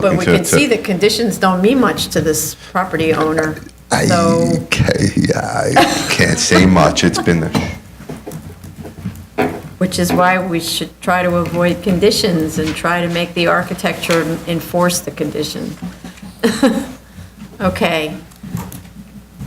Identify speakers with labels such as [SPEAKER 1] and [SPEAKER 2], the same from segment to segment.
[SPEAKER 1] But
[SPEAKER 2] looking
[SPEAKER 1] we
[SPEAKER 2] to-
[SPEAKER 1] can
[SPEAKER 2] to-
[SPEAKER 1] see that conditions don't mean much to this property owner.
[SPEAKER 2] I,
[SPEAKER 1] So,
[SPEAKER 2] okay, yeah, I can't say much. It's been there.
[SPEAKER 1] which is why we should try to avoid conditions and try to make the architecture enforce the condition. Okay.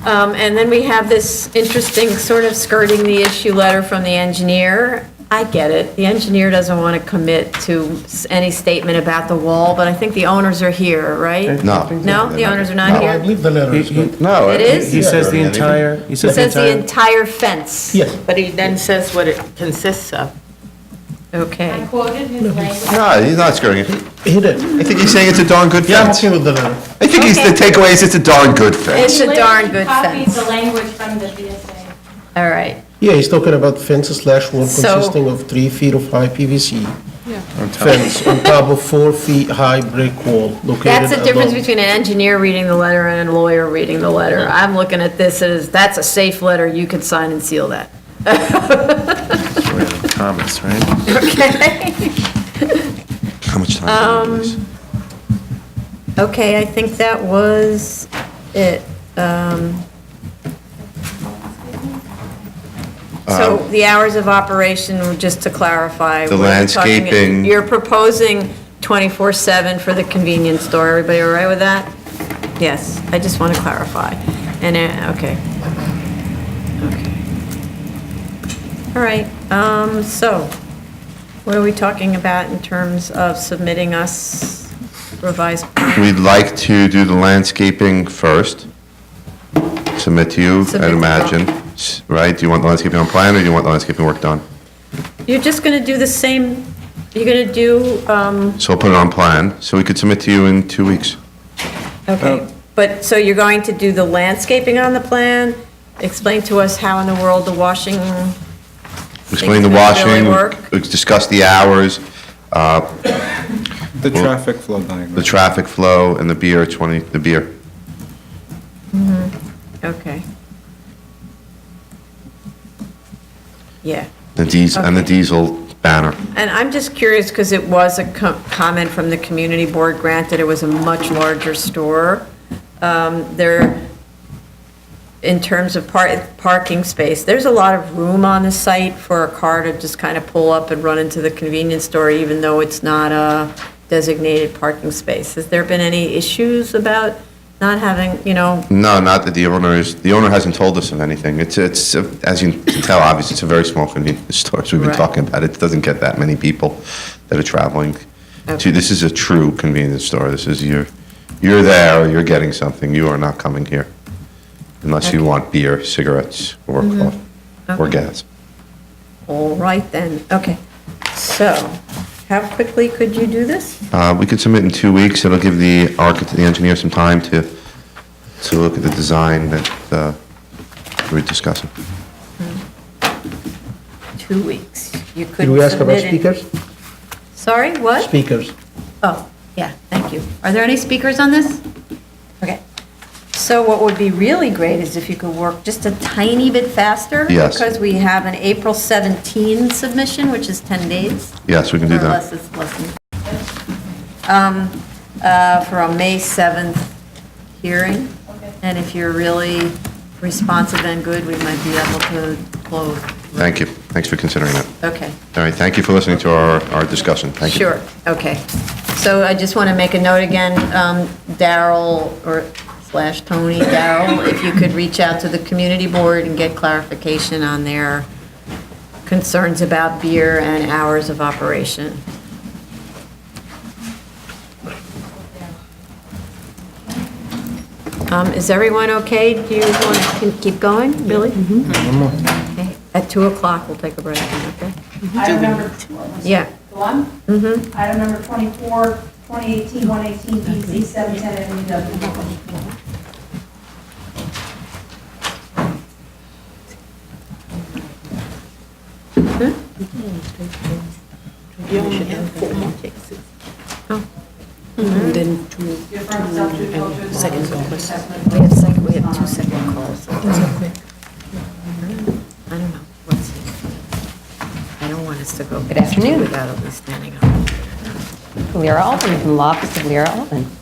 [SPEAKER 1] Um, And then we have this interesting sort of skirting the issue letter from the engineer. I get it, the engineer doesn't want to commit to s- any statement about the wall, but I think the owners are here, right?
[SPEAKER 2] No.
[SPEAKER 1] No, the owners are not
[SPEAKER 2] No.
[SPEAKER 3] I
[SPEAKER 1] here?
[SPEAKER 3] believe the letter
[SPEAKER 4] He-
[SPEAKER 3] is
[SPEAKER 4] He
[SPEAKER 3] good.
[SPEAKER 2] No.
[SPEAKER 1] It
[SPEAKER 2] I-
[SPEAKER 1] is?
[SPEAKER 4] he says the
[SPEAKER 2] Yeah.
[SPEAKER 4] entire, he
[SPEAKER 1] It
[SPEAKER 4] says the
[SPEAKER 1] says the
[SPEAKER 4] entire,
[SPEAKER 1] entire fence.
[SPEAKER 3] Yes,
[SPEAKER 5] But he then says what it consists of.
[SPEAKER 6] I
[SPEAKER 1] Okay.
[SPEAKER 6] quoted his language.
[SPEAKER 2] No, he's not skirting it.
[SPEAKER 3] he did.
[SPEAKER 2] I think he's saying it's a darn good
[SPEAKER 3] Yeah, I'm
[SPEAKER 2] fence.
[SPEAKER 3] okay with the letter.
[SPEAKER 2] I think he's, the
[SPEAKER 1] Okay.
[SPEAKER 2] takeaway is it's a darn good
[SPEAKER 1] It's-
[SPEAKER 2] fence.
[SPEAKER 1] a darn good
[SPEAKER 6] Copied
[SPEAKER 1] fence.
[SPEAKER 6] the language from the VSA.
[SPEAKER 1] All right.
[SPEAKER 3] Yeah, he's talking about fence slash wall
[SPEAKER 1] So-
[SPEAKER 3] consisting of three feet of high PVC fence on top of four feet high brick wall located.
[SPEAKER 1] That's the difference
[SPEAKER 3] above-
[SPEAKER 1] between an engineer reading the letter and a lawyer reading the letter. I'm looking at this as, that's a safe letter, you can sign and seal that.
[SPEAKER 4] comments, right?
[SPEAKER 2] How much time
[SPEAKER 1] Um,
[SPEAKER 2] do we have, please?
[SPEAKER 1] Okay, I think that was it. Um, So the hours of operation, just to clarify.
[SPEAKER 2] Um, The
[SPEAKER 1] we're talking-
[SPEAKER 2] landscaping.
[SPEAKER 1] You're proposing 24/7 for the convenience store. Everybody all right with that? Yes, I just want to clarify. And, uh, okay. Okay. All right, um, so what are we talking about in terms of submitting us revised?
[SPEAKER 2] We'd like to do the landscaping first. Submit to you,
[SPEAKER 1] Submit
[SPEAKER 2] I'd
[SPEAKER 1] to
[SPEAKER 2] imagine, S- right? Do you want the landscaping on plan or do you want the landscaping work done?
[SPEAKER 1] You're just going to do the same, you're going to do, um,
[SPEAKER 2] So I'll put it on plan, so we could submit to you in two weeks.
[SPEAKER 1] okay, but, so you're going to do the landscaping on the plan? Explain to us how in the world the washing,
[SPEAKER 2] Explain the
[SPEAKER 1] Things that really
[SPEAKER 2] washing,
[SPEAKER 1] work.
[SPEAKER 2] we- discuss the hours,
[SPEAKER 7] The traffic flow diagram.
[SPEAKER 2] the traffic flow, and the beer, 20, the beer.
[SPEAKER 1] okay. Yeah.
[SPEAKER 2] The diesel, and the
[SPEAKER 1] Okay.
[SPEAKER 2] diesel banner.
[SPEAKER 1] And I'm just curious, because it was a co- comment from the community board, granted it was a much larger store. Um, There, in terms of par- parking space, there's a lot of room on the site for a car to just kind of pull up and run into the convenience store, even though it's not a designated parking space. Has there been any issues about not having, you know,
[SPEAKER 2] No, not that the owner is, the owner hasn't told us of anything. It's, it's, uh, as you can tell, obviously, it's a very small convenience store, as we've been
[SPEAKER 1] Right.
[SPEAKER 2] talking about. It doesn't get that many people that are traveling
[SPEAKER 1] Okay.
[SPEAKER 2] to, this is a true convenience store. This is your, you're there, you're getting something, you are not coming here. Unless you
[SPEAKER 1] Okay. Mm-hmm.
[SPEAKER 2] want beer, cigarettes, or coffee, or
[SPEAKER 1] Okay.
[SPEAKER 2] gas.
[SPEAKER 1] all right then, okay. So, how quickly could you do this?
[SPEAKER 2] Uh, We could submit in two weeks, it'll give the architect, the engineer some time to, to look at the design that uh, we're discussing.
[SPEAKER 1] Two weeks. You could
[SPEAKER 3] Did
[SPEAKER 1] submit
[SPEAKER 3] we ask about
[SPEAKER 1] it-
[SPEAKER 3] speakers?
[SPEAKER 1] Sorry, what?
[SPEAKER 3] Speakers.
[SPEAKER 1] Oh, yeah, thank you. Are there any speakers on this? Okay. So what would be really great is if you could work just a tiny bit faster.
[SPEAKER 2] Yes.
[SPEAKER 1] Because we have an April 17 submission, which is 10 days.
[SPEAKER 2] Yes, we can do
[SPEAKER 1] Or
[SPEAKER 2] that.
[SPEAKER 1] less, it's less than. Um, uh, For a May 7th hearing. And if you're really responsive and good, we might be able to close.
[SPEAKER 2] Thank you, thanks for considering that.
[SPEAKER 1] Okay.
[SPEAKER 2] All right, thank you for listening to our, our discussion. Thank you.
[SPEAKER 1] Sure, okay. So I just want to make a note again, um, Daryl or slash Tony, Daryl, if you could reach out to the community board and get clarification on their concerns about beer and hours of operation. Um, Is everyone okay? Do you want to keep going, Billy? Okay. At 2 o'clock, we'll take a break, okay?
[SPEAKER 8] Item number, what was it?
[SPEAKER 1] Yeah.
[SPEAKER 8] The one? Mm-hmm. Item number 24, 2018, 118, BZ
[SPEAKER 6] E
[SPEAKER 8] 710 MW.
[SPEAKER 1] Hmm? Oh. Hmm.
[SPEAKER 8] Your firm's up to culture. Second
[SPEAKER 1] We have second, we have two second calls. I don't know, what's it? I don't want us to go. Good afternoon. Without at least standing up. Alton, Lira Alton, from the office of Lira Alton.